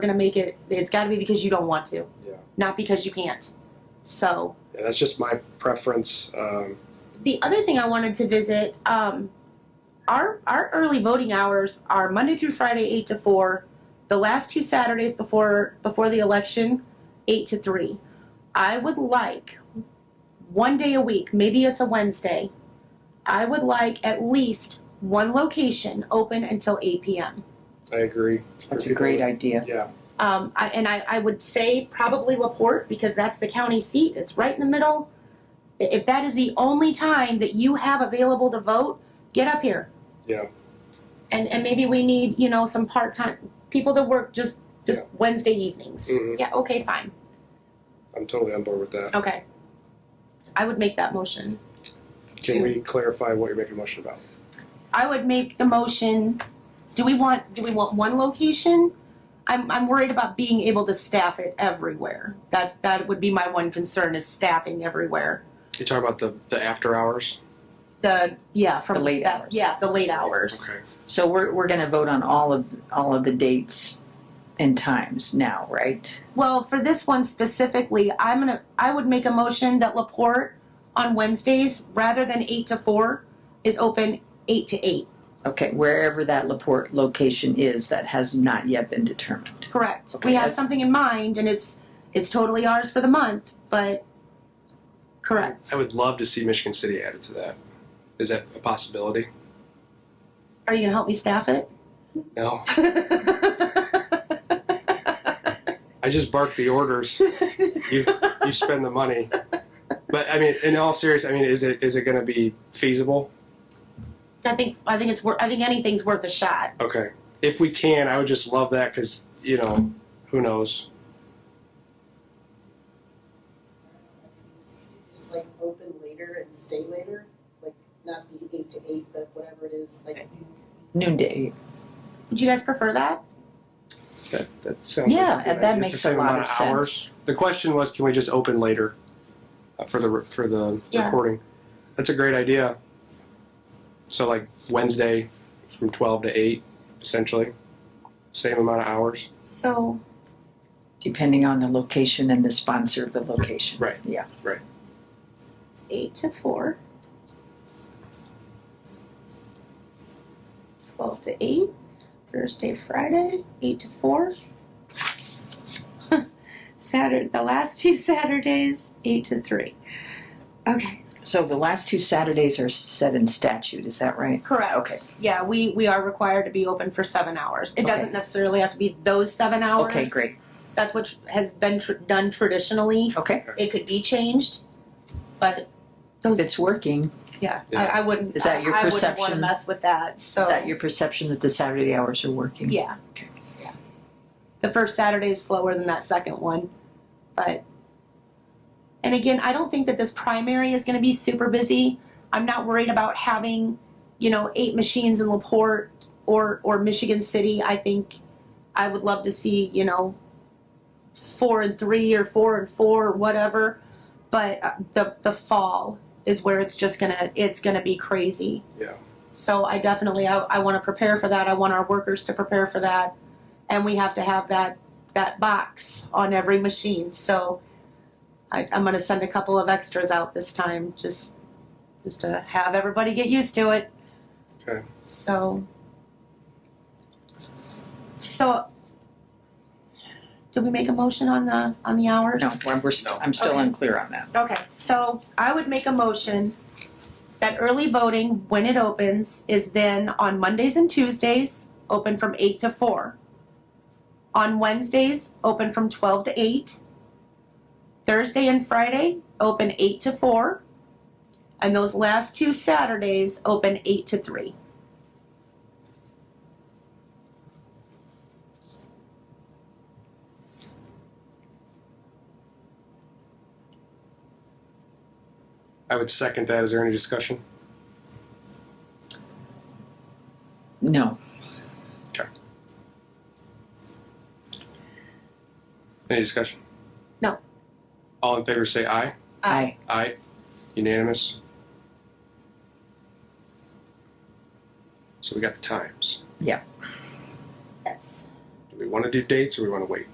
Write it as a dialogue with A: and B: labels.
A: gonna make it it's gotta be because you don't want to.
B: Yeah.
A: Not because you can't. So
B: Yeah, that's just my preference. Um,
A: the other thing I wanted to visit, um, our our early voting hours are Monday through Friday eight to four, the last two Saturdays before before the election, eight to three. I would like one day a week, maybe it's a Wednesday. I would like at least one location open until eight p.m.
B: I agree.
C: That's a great idea.
B: Yeah,
A: Um, I, and I, I would say probably LaPorte because that's the county seat. It's right in the middle. I- If that is the only time that you have available to vote, get up here.
B: Yeah.
A: And and maybe we need you know some part time people that work just just
B: Yeah.
A: Wednesday evenings.
B: Mhm.
A: Yeah. Okay. Fine.
B: I'm totally on board with that.
A: Okay. So I would make that motion.
B: Can we clarify what you're making a motion about?
A: I would make the motion. Do we want do we want one location? I'm I'm worried about being able to staff it everywhere. That that would be my one concern is staffing everywhere.
B: You're talking about the, the after hours?
A: The yeah from
C: The late
A: that-
C: hours.
A: Yeah, the late hours.
B: Okay.
C: So we're, we're gonna vote on all of, all of the dates and times now, right?
A: Well, for this one specifically, I'm gonna I would make a motion that Laporte on Wednesdays rather than eight to four is open eight to eight.
C: Okay, wherever that Laporte location is, that has not yet been determined.
A: Correct.
C: Okay.
A: We have something in mind and it's it's totally ours for the month, but correct.
B: I would love to see Michigan City added to that. Is that a possibility?
A: Are you gonna help me staff it?
B: No. I just bark the orders. you you spend the money. But I mean, in all serious, I mean, is it is it going to be feasible?
A: I think I think it's worth. I think anything's worth a shot.
B: Okay. If we can, I would just love that because you know, who knows?
D: just like open later and stay later, like not be eight to eight, but whatever it is, like you
C: Noonday,
A: Would you guys prefer that?
B: That that sounds.
C: yeah,
B: like a good
C: that
B: idea. It's the
C: makes a
B: same
C: lot
B: amount
C: of
B: hours.
C: sense.
B: The question was, can we just open later uh, for the for the
A: Yeah.
B: recording? That's a great idea. So like Wednesday from twelve to eight, essentially, same amount of hours.
A: So
C: Depending on the location and the sponsor of the location.
B: Right.
C: Yeah,
A: eight to four. Twelve to eight, Thursday, Friday, eight to four. Saturday, the last two Saturdays, eight to three. Okay.
C: so the last two Saturdays are set in statute, is that right?
A: Correct.
C: Okay.
A: Yeah, we we are required to be open for seven hours. It
C: Okay.
A: doesn't necessarily have to be those seven hours.
C: Okay, great,
A: That's what has been tr- done traditionally.
C: okay.
A: it could be changed, but
C: If it's working,
A: yeah,
B: Yeah.
A: I, I wouldn't.
C: Is that your
A: I, I wouldn't want to
C: perception?
A: mess with that. So
C: is that your perception that the Saturday hours are working?
A: yeah,
C: Okay.
A: yeah. The first Saturday is slower than that second one, but and again, I don't think that this primary is going to be super busy. I'm not worried about having you know eight machines in Laporte or or Michigan City. I think I would love to see you know four and three or four and four or whatever, but uh, the the fall is where it's just gonna it's gonna be crazy.
B: Yeah.
A: So I definitely I, I want to prepare for that. I want our workers to prepare for that, and we have to have that that box on every machine. So I, I'm gonna send a couple of extras out this time just just to have everybody get used to it.
B: Okay.
A: So. So. Did we make a motion on the on the hours?
C: No, we're, we're still, I'm still
A: Okay.
C: unclear on that.
A: Okay, so I would make a motion that early voting, when it opens, is then on Mondays and Tuesdays, open from eight to four. On Wednesdays, open from twelve to eight. Thursday and Friday, open eight to four. And those last two Saturdays, open eight to three.
B: I would second that. Is there any discussion?
C: No,
B: Any discussion?
A: No.
B: All in favor, say aye.
C: I,
B: Aye. Unanimous. So we got the times.
A: Yes.
B: Do we want to do dates or we want to wait?